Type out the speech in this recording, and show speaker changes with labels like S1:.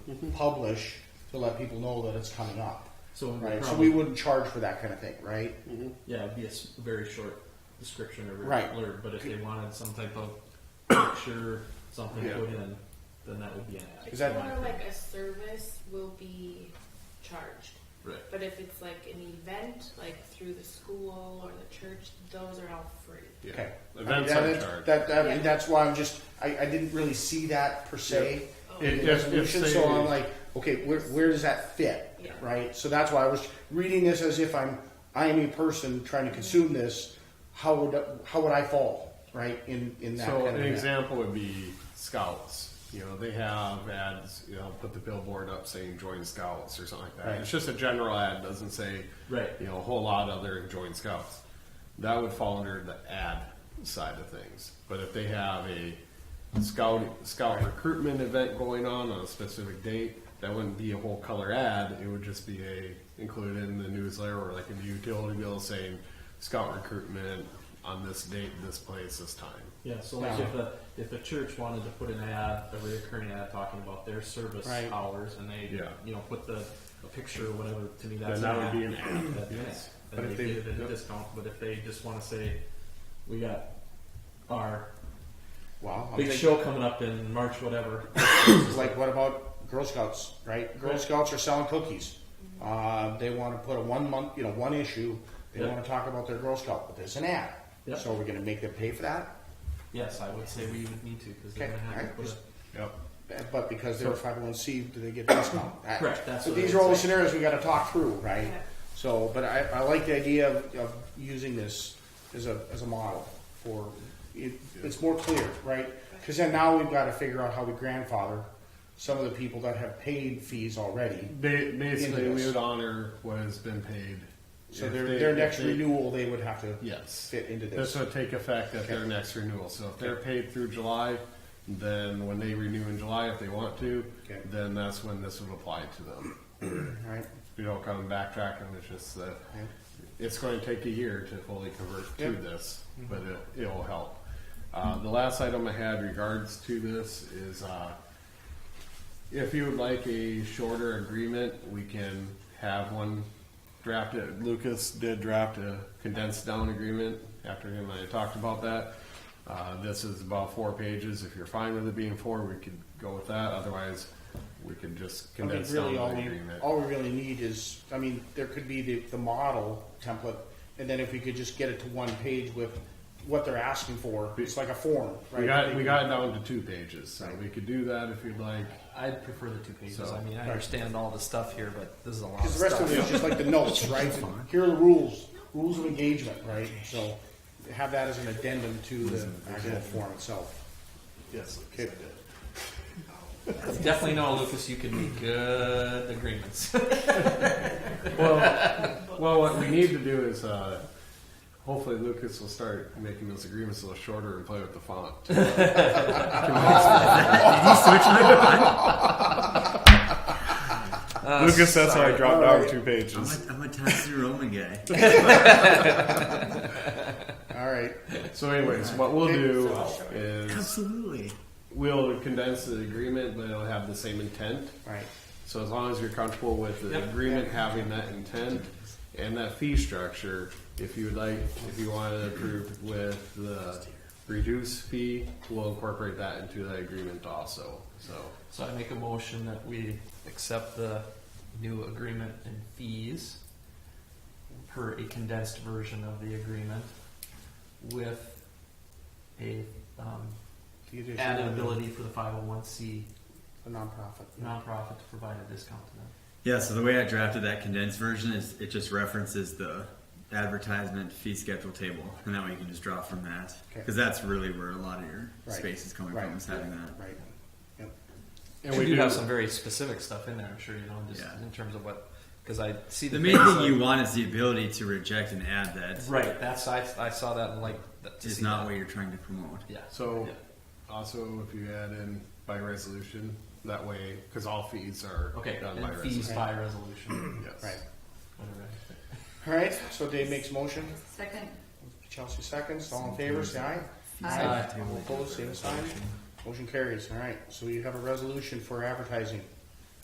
S1: publish to let people know that it's coming up.
S2: So, it would
S1: Right. So
S2: probably-
S1: we wouldn't charge for that kind of thing, right?
S2: yeah, it'd be a s- very short description or
S1: Right.
S2: blurb. But if they wanted some type of picture, something
S1: Yeah.
S2: put in, then that would be an ad.
S1: Is that-
S3: More like a service will be charged,
S2: right?
S3: but if it's like an event, like through the school or the church, those are all free.
S4: Yeah.
S1: Okay.
S4: Events
S1: I mean,
S4: are
S1: that-
S4: charged.
S1: That, that- I mean,
S3: Yeah.
S1: that's why I'm just, I, I didn't really see that per se.
S3: Yeah.
S1: in the
S4: If- if- if
S1: resolution,
S4: they-
S1: so I'm like, okay, where, where does that fit?
S3: Yeah.
S1: Right? So that's why I was reading this as if I'm, I am a person trying to consume this. How would, how would I fall, right, in, in that
S4: So
S1: kind
S4: an
S1: of thing?
S4: example would be scouts. You know, they have ads. You know, put the billboard up saying "Join Scouts" or something like that.
S1: Right.
S4: It's just a general ad. Doesn't say
S2: Right.
S4: You know, a whole lot other than "Join Scouts." That would fall under the ad side of things. But if they have a scout scout recruitment event going on on a specific date, that wouldn't be a whole color ad. It would just be a included in the newsletter or like a utility bill saying scout recruitment on this date, this place, this time.
S2: Yeah, so like
S1: Yeah.
S2: if a if a church wanted to put an ad, a reoccurring ad talking about their service
S1: Right.
S2: hours, and they
S4: Yeah.
S2: you know put the a picture or whatever, to me that's
S4: Then
S2: an
S4: that would be an ad.
S2: That'd be an ad.
S4: Yes.
S2: Then
S4: But if
S2: they
S4: they-
S2: get it at a
S4: yep.
S2: discount. But if they just want to say, we got our
S1: Wow. I'm
S2: big
S1: thinking-
S2: show coming up in March, whatever.
S1: like what about Girl Scouts, right? Girl
S2: Right.
S1: Scouts are selling cookies. Uh, they want to put a one month, you know, one issue. They
S2: Yeah.
S1: want to talk about their Girl Scout, but there's an ad.
S2: Yeah.
S1: So we're going to make them pay for that.
S2: yes, I would say we would need to because they're
S1: Okay,
S2: gonna have
S1: alright,
S2: to put
S1: just-
S2: a,
S4: Yep.
S1: But because they're five hundred one C, do they get a discount? That-
S2: Correct, that's
S1: But
S2: what
S1: these
S2: I
S1: are all the
S2: would say.
S1: scenarios we got to talk through, right?
S3: Yeah.
S1: So, but I, I like the idea of, of using this as a as a model for it, it's more clear, right? Because then now we've got to figure out how we grandfather some of the people that have paid fees already.
S4: Ba- basically,
S1: Into
S4: we
S1: this.
S4: would honor what has been paid.
S1: So
S4: If
S1: their,
S4: they-
S1: their
S4: if
S1: next
S4: they-
S1: renewal, they would have to
S4: Yes.
S1: fit into this.
S4: This would take effect at their
S1: Okay.
S4: next renewal. So if they're paid through July, then when they renew in July, if they want to,
S1: Okay.
S4: then that's when this would apply to them.
S1: All right.
S4: We don't come backtracking. It's just that
S1: Yeah.
S4: it's going to take a year to fully convert to
S1: Yeah. Mm-hmm.
S4: this, but it, it will help. Uh, the last item I had regards to this is uh, if you would like a shorter agreement, we can have one drafted. Lucas did draft a condensed down agreement after him and I talked about that. Uh, this is about four pages. If you're fine with it being four, we could go with that. Otherwise, we could just
S1: I mean,
S4: condense
S1: really, all
S4: down the
S1: we,
S4: agreement.
S1: all we really need is, I mean, there could be the, the model template, and then if we could just get it to one page with what they're asking for, it's like a form, right?
S4: We got we got it down to two pages, so we could do that if you'd like.
S2: I'd prefer the two pages.
S4: So-
S2: I mean, I understand all the stuff here, but this is a lot.
S1: Because the rest
S2: stuff.
S1: of it is just like the notes, right? Here are the rules, rules of engagement, right? So have that as an addendum to the actual form itself.
S2: Yes.
S1: Okay.
S2: Definitely know, Lucas, you can make good agreements.
S4: Well, well, what we need to do is uh, hopefully Lucas will start making those agreements a little shorter and play with the font. Lucas, that's how I dropped down two
S5: I'm
S4: pages.
S5: a, I'm a Times New Roman guy.
S1: All right,
S4: So, anyways, what we'll do is
S5: Absolutely.
S4: we'll condense the agreement, but it'll have the same intent.
S1: all right.
S4: So as long as you're comfortable with the agreement having that intent and that fee structure, if you would like, if you want to approve with the reduced fee, we'll incorporate that into that agreement also, so.
S2: So I make a motion that we accept the new agreement and fees per a condensed version of the agreement with a um,
S1: The addition
S2: added
S1: of the-
S2: ability for the 501c
S1: The nonprofit.
S2: nonprofit to provide a discount to them.
S5: Yeah, so the way I drafted that condensed version is it just references the advertisement fee schedule table, and that way you can just draw from that.
S1: Okay.
S5: Because that's really where a lot of your
S1: Right.
S5: space is coming
S1: Right.
S5: from, is having that.
S1: Right. Yep.
S4: And
S2: we
S4: we
S2: do have
S4: do,
S2: some very specific stuff in there, I'm sure you know, just
S5: Yeah.
S2: in terms of what, because I see the,
S5: The main
S2: things
S5: thing
S2: like-
S5: you want is the ability to reject an ad that
S2: right. That's I, I saw that and like that, to
S5: is
S2: see
S5: not
S2: that.
S5: what you're trying to promote.
S2: yeah.
S4: so
S2: yeah.
S4: also if you add in by resolution, that way, because all fees are
S2: okay,
S4: done by
S2: and fees
S4: resolution.
S2: by resolution.
S4: Yes.
S1: Right.
S2: Whatever.
S1: All right, so Dave makes a motion,
S6: Second.
S1: Chelsea seconds, all in favor, say aye.
S6: Aye.
S1: All opposed, same sign. Motion carries, all right, so you have a resolution for advertising.